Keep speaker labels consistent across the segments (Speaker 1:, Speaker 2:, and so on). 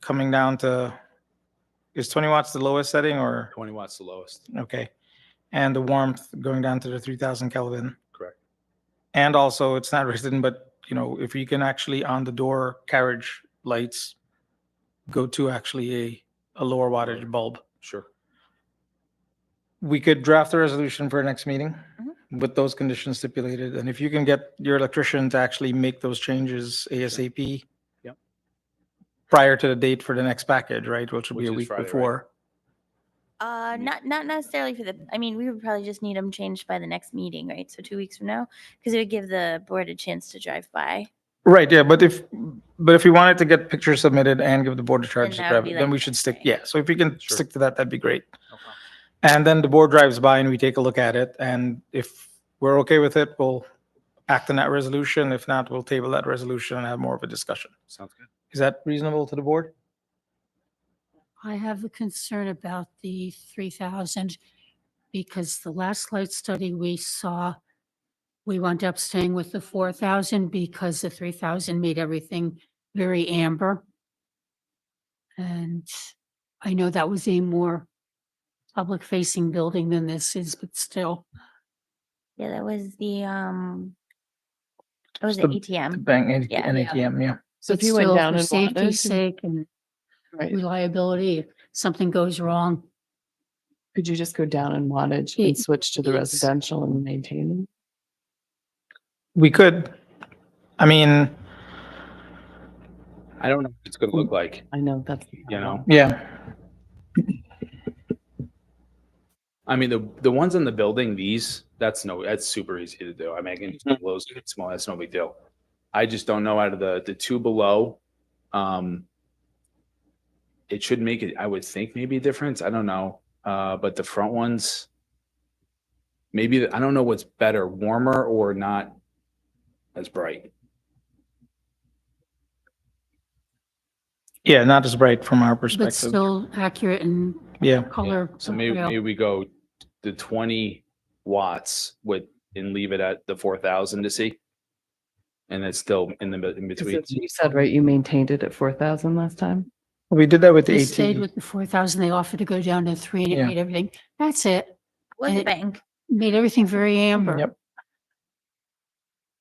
Speaker 1: coming down to, is 20 watts the lowest setting or,
Speaker 2: 20 watts the lowest.
Speaker 1: okay? And the warmth going down to the 3000 Kelvin?
Speaker 2: Correct.
Speaker 1: And also, it's not written, but, you know, if you can actually on the door carriage lights, go to actually a, a lower wattage bulb.
Speaker 2: Sure.
Speaker 1: we could draft a resolution for our next meeting with those conditions stipulated, and if you can get your electrician to actually make those changes ASAP.
Speaker 2: Yep.
Speaker 1: Prior to the date for the next package, right, which will be
Speaker 2: Which
Speaker 1: a
Speaker 2: is
Speaker 1: week
Speaker 2: Friday, right?
Speaker 1: before.
Speaker 3: Uh,
Speaker 2: Yeah.
Speaker 3: not not necessarily for the. I mean, we would probably just need them changed by the next meeting, right? So two weeks from now, because it would give the board a chance to drive by.
Speaker 1: Right, yeah, but if, but if we wanted to get pictures submitted and give the board a charge to
Speaker 3: that would
Speaker 1: grab
Speaker 3: be
Speaker 1: it, then
Speaker 3: like
Speaker 1: we should stick,
Speaker 3: Friday.
Speaker 1: yeah, so if we can
Speaker 2: Sure.
Speaker 1: stick to that, that'd be great.
Speaker 2: No problem.
Speaker 1: And then the board drives by and we take a look at it, and if we're okay with it, we'll act on that resolution, if not, we'll table that resolution and have more of a discussion.
Speaker 2: Sounds good.
Speaker 1: Is that reasonable to the board?
Speaker 4: I have a concern about the 3,000 because the last light study we saw, we wound up staying with the 4,000 because the 3,000 made everything very amber. And I know that was a more public-facing building than this is, but still.
Speaker 3: Yeah, that was the um. It was the
Speaker 1: the-
Speaker 3: ATM.
Speaker 1: Bank and
Speaker 3: Yeah.
Speaker 1: and ATM, yeah.
Speaker 5: So if
Speaker 4: but
Speaker 5: you went
Speaker 4: still,
Speaker 5: down
Speaker 4: for
Speaker 5: and
Speaker 4: Safety's
Speaker 5: wanted,
Speaker 4: sake and
Speaker 5: right,
Speaker 4: reliability, if something goes wrong,
Speaker 5: could you just go down and wattage
Speaker 4: It-
Speaker 5: and switch to the
Speaker 4: it's-
Speaker 5: residential and maintain?
Speaker 1: We could. I mean,
Speaker 2: I don't know what it's going to look like.
Speaker 5: I know that's.
Speaker 2: You know?
Speaker 1: yeah,
Speaker 2: I mean, the, the ones in the building, these, that's no, that's super easy to do. I mean, I can just close it small. That's no big deal. I just don't know out of the, the two below, um, it should make it, I would think maybe a difference. I don't know. Uh, but the front ones, maybe, the- I don't know what's better, warmer or not as bright.
Speaker 1: yeah, not as bright from our
Speaker 4: but
Speaker 1: perspective.
Speaker 4: still accurate and
Speaker 1: Yeah,
Speaker 2: Yeah,
Speaker 4: color.
Speaker 2: So maybe,
Speaker 4: real.
Speaker 2: maybe we go the twenty watts with, and leave it at the four thousand to see. And it's still in the, mid- in between.
Speaker 5: Because You said, right, you maintained it at four thousand last time?
Speaker 1: we did that with the
Speaker 4: They stayed
Speaker 1: AT.
Speaker 4: with the four thousand. They offered to go down to three and it
Speaker 1: Yeah.
Speaker 4: made everything. That's it.
Speaker 3: Was
Speaker 4: and
Speaker 3: the
Speaker 4: it-
Speaker 3: bank?
Speaker 4: Made everything very amber.
Speaker 1: Yep.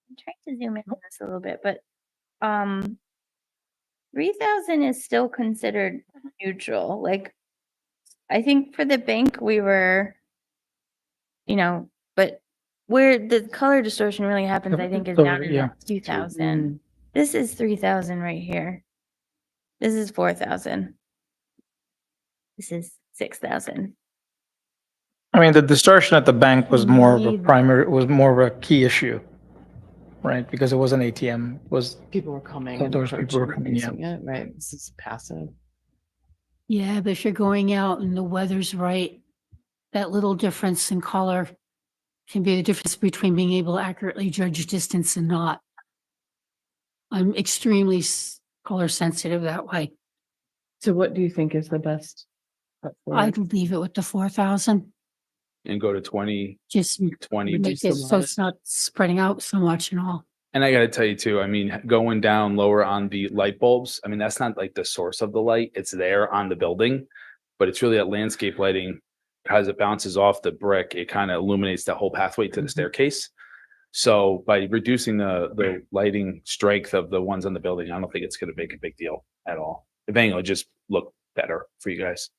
Speaker 3: I'm trying to zoom in on this a little bit, but um, three thousand is still considered neutral. Like, I think for the bank we were, you know, but where the color distortion really happens, I think, is
Speaker 1: The-
Speaker 3: down in
Speaker 1: yeah.
Speaker 3: two thousand.
Speaker 5: Mm.
Speaker 3: This is three thousand right here. This is four thousand. This is six thousand.
Speaker 1: I mean, the distortion at the bank was more of a
Speaker 4: Need-
Speaker 1: primary, was more of a key issue, right? Because it was an ATM, was,
Speaker 5: People were coming.
Speaker 1: So
Speaker 5: and
Speaker 1: those people were
Speaker 5: approaching and
Speaker 1: coming,
Speaker 5: using it, Right, this is passive.
Speaker 4: Yeah, but if you're going out and the weather's right, that little difference in color can be the difference between being able to accurately judge distance and not. I'm extremely s- color sensitive that way.
Speaker 5: So what do you think is the best? cut
Speaker 4: I'd
Speaker 5: forward?
Speaker 4: leave it with the four thousand,
Speaker 2: And go to twenty,
Speaker 4: just
Speaker 2: twenty.
Speaker 5: Reduce
Speaker 4: make
Speaker 5: the
Speaker 4: it so
Speaker 5: light.
Speaker 4: it's not spreading out so much and all.
Speaker 2: And I gotta tell you too, I mean, going down lower on the light bulbs, I mean, that's not like the source of the light. It's there on the building. But it's really that landscape lighting, as it bounces off the brick, it kind of illuminates the whole pathway to the
Speaker 1: Mhm.
Speaker 2: staircase. So by reducing the, the lighting strength of the ones on the building, I don't think it's gonna make a big deal at all. If anything, it'll just look better for you guys.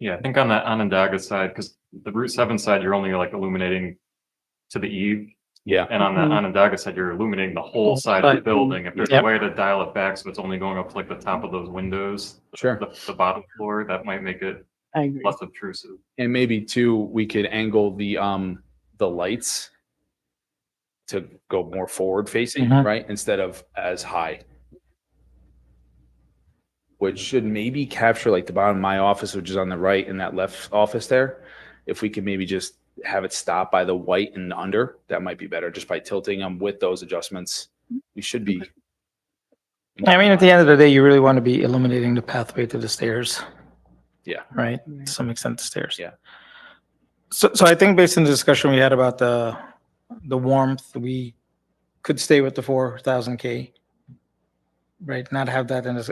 Speaker 6: Yeah, I think on the Onondaga side, because the Route Seven side, you're only like illuminating to the eve,
Speaker 2: Yeah,
Speaker 6: and on the
Speaker 5: Mhm.
Speaker 6: Onondaga side, you're illuminating the Mm-hmm. whole side of the
Speaker 1: Right.
Speaker 6: building. If there's a
Speaker 1: Yep.
Speaker 6: way to dial it back, so it's only going up to like the top of those windows,
Speaker 2: sure.
Speaker 6: the, the bottom floor, that might make it
Speaker 5: I agree.
Speaker 6: less obtrusive.
Speaker 2: And maybe too, we could angle the, um, the lights to go more forward facing,
Speaker 1: Mhm.
Speaker 2: right? Instead of as high. Which should maybe capture like the bottom of my office, which is on the right in that left office there. If we could maybe just have it stop by the white and under, that might be better, just by tilting them with those adjustments. We should be.
Speaker 1: I mean, at the end of the day, you really want to be illuminating the pathway to the stairs.
Speaker 2: Yeah.
Speaker 1: Right?
Speaker 5: Right.
Speaker 1: To some extent, the stairs.
Speaker 2: Yeah.
Speaker 1: So, so I think based on the discussion we had about the, the warmth, we could stay with the four thousand K. Right? Not have that in as,